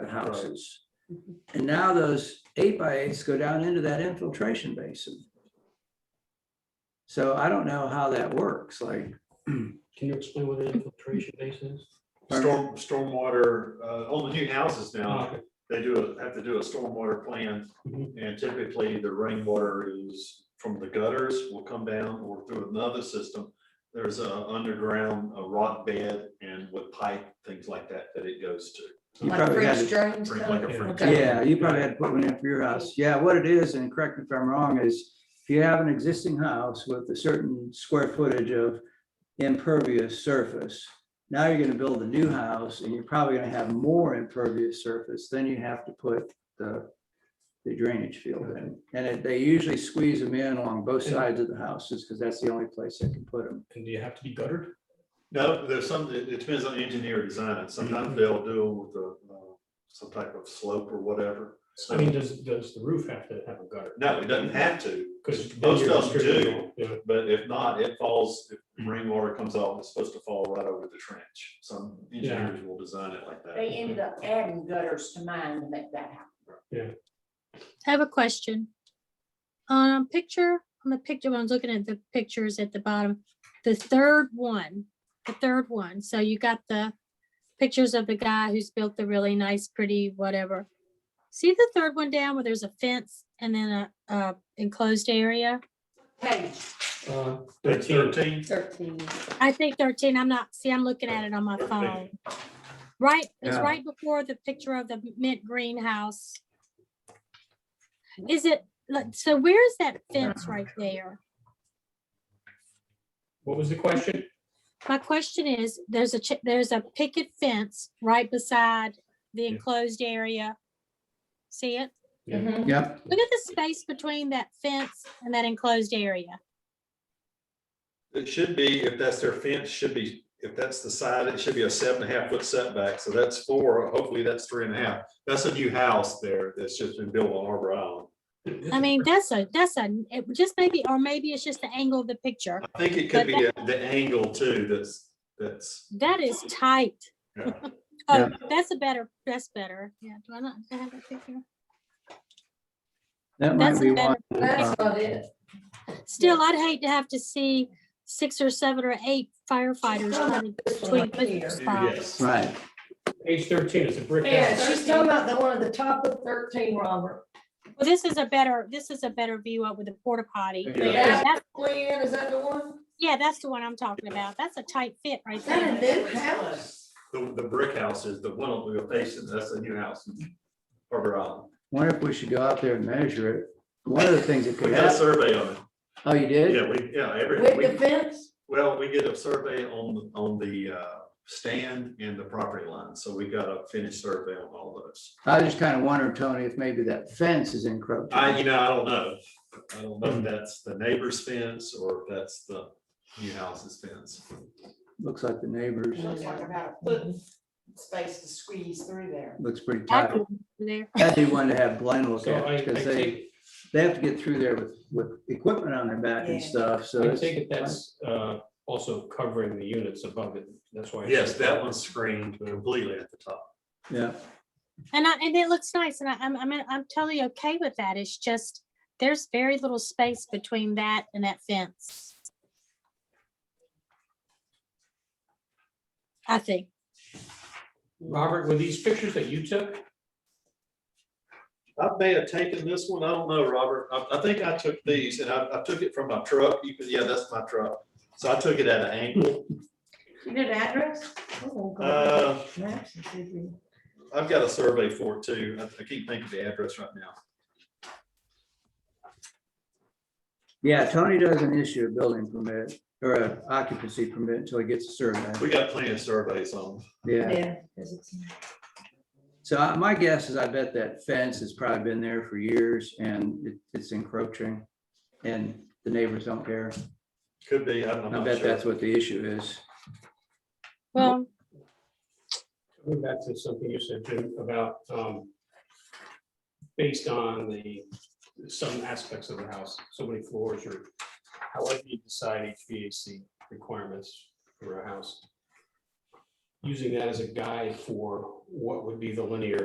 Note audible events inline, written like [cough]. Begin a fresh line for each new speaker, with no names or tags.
houses. And now those eight by eights go down into that infiltration basin. So I don't know how that works, like.
Can you explain what an infiltration base is?
Storm, stormwater, uh, all the new houses now,
Okay.
they do, a- have to do a stormwater plan.
Mhm.
And typically the rainwater is from the gutters will come down or through another system. There's a underground, a rock bed and with pipe, things like that, that it goes to.
you
Like
probably had to-
French drains?
Drink
kind
like
of?
a French.
Okay.
Yeah, you probably had to put one in for your house. Yeah, what it is, and correct me if I'm wrong, is if you have an existing house with a certain square footage of impervious surface, now you're gonna build a new house and you're probably gonna have more impervious surface, then you have to put the the drainage field in. And it- they usually squeeze them in along both sides of the houses because that's the only place they can put them.
And do you have to be guttered?
No, there's some, it it depends on engineer design.
Mm-hmm.
Sometimes they'll do it with a, uh, some type of slope or whatever.
I mean, does, does the roof have to have a gutter?
No, it doesn't have to.
Because
Most of them do. But if not, it falls, if rainwater comes off, it's supposed to fall right over the trench. Some engineers will design it like
They
that.
ended up adding gutters to mine to make that happen.
I have a question. Um, picture, on the picture, when I was looking at the pictures at the bottom, the third one, the third one, so you got the pictures of the guy who's built the really nice, pretty, whatever. See the third one down where there's a fence and then a, a enclosed area?
Page
Uh,
Page
Thirteen,
thirteen,
Thirteen.
I think thirteen, I'm not, see, I'm looking at it on my phone. Right, it's
Yeah.
right before the picture of the mint greenhouse. Is it, like, so where's that fence right there?
what was the question?
My question is, there's a, chi- there's a picket fence right beside the
Yeah.
enclosed area. See it?
Yeah.
Mm-hmm.
Yep,
Look at the space between that fence and that enclosed area.
it should be, if that's their fence, should be, if that's the side, it should be a seven and a half foot setback. So that's four, hopefully that's three and a half. That's a new house there that's just been built on Arbor Island.
I mean, that's a, that's a, it just maybe, or maybe it's just the angle of the picture.
I think it could be a- the angle too, that's, that's,
That is tight.
yeah.
[laughs] Oh, that's a better, that's better. Yeah, do I not do I have that picture?
that might
That's
be
a
one.
better,
Uh,
That's what it is.
still, I'd hate to have to see six or seven or eight firefighters running
This one
between
right here.
business spots.
yes.
Right,
Page thirteen is a brick
Yeah,
house.
she's talking about the one at the top of thirteen, Robert.
Well, this is a better, this is a better view up with the porta potty.
Yeah.
That's-
Leanne, is that the one?
Yeah, that's the one I'm talking about. That's a tight fit right
Is
there.
that a new house?
The, the brick house is the one on the facing, that's a new house, in Arbor Island.
wonder if we should go out there and measure it. One of the things that
We
could
got a
happen,
survey on it.
oh, you did?
Yeah, we, yeah, every,
With
we,
the fence?
well, we did a survey on, on the, uh, stand and the property line, so we got a finished survey on all those.
I just kind of wonder, Tony, if maybe that fence is encroaching.
Uh,
I, you know, I don't know, I don't know if that's the neighbor's fence or if that's the new house's fence.
Looks like the neighbors,
looks like about a foot space to squeeze through there.
looks pretty
I
tight.
could do there.
That'd be one to have Glenn look
So I, I
at, because they,
take,
they have to get through there with, with equipment on their back and
Yeah.
stuff, so.
I
it's-
take it that's, uh, also covering the units above it. That's why. I
Yes,
said-
that one's screened completely at the top.
Yeah,
And I, and it looks nice and I, I'm, I'm, I'm totally okay with that. It's just, there's very little space between that and that fence. I think.
Robert, were these pictures that you took?
I may have taken this one, I don't know, Robert, I, I think I took these and I, I took it from my truck, you could, yeah, that's my truck. So I took it at an angle,
You did address? Oh, God.
uh,
Maps and see if we-
I've got a survey for it too. I I can't think of the address right now.
yeah, Tony doesn't issue a building permit or an occupancy permit until he gets a survey,
We got plenty of surveys on.
yeah.
Yeah. 'cause it's-
So I- my guess is I bet that fence has probably been there for years and it- it's encroaching and the neighbors don't care.
Could be, I don't know.
I bet that's what the issue is.
Well,
Coming back to something you said, Jim, about, um, based on the, some aspects of the house, so many floors or however you decide HVAC requirements for a house. Using that as a guide for what would be the linear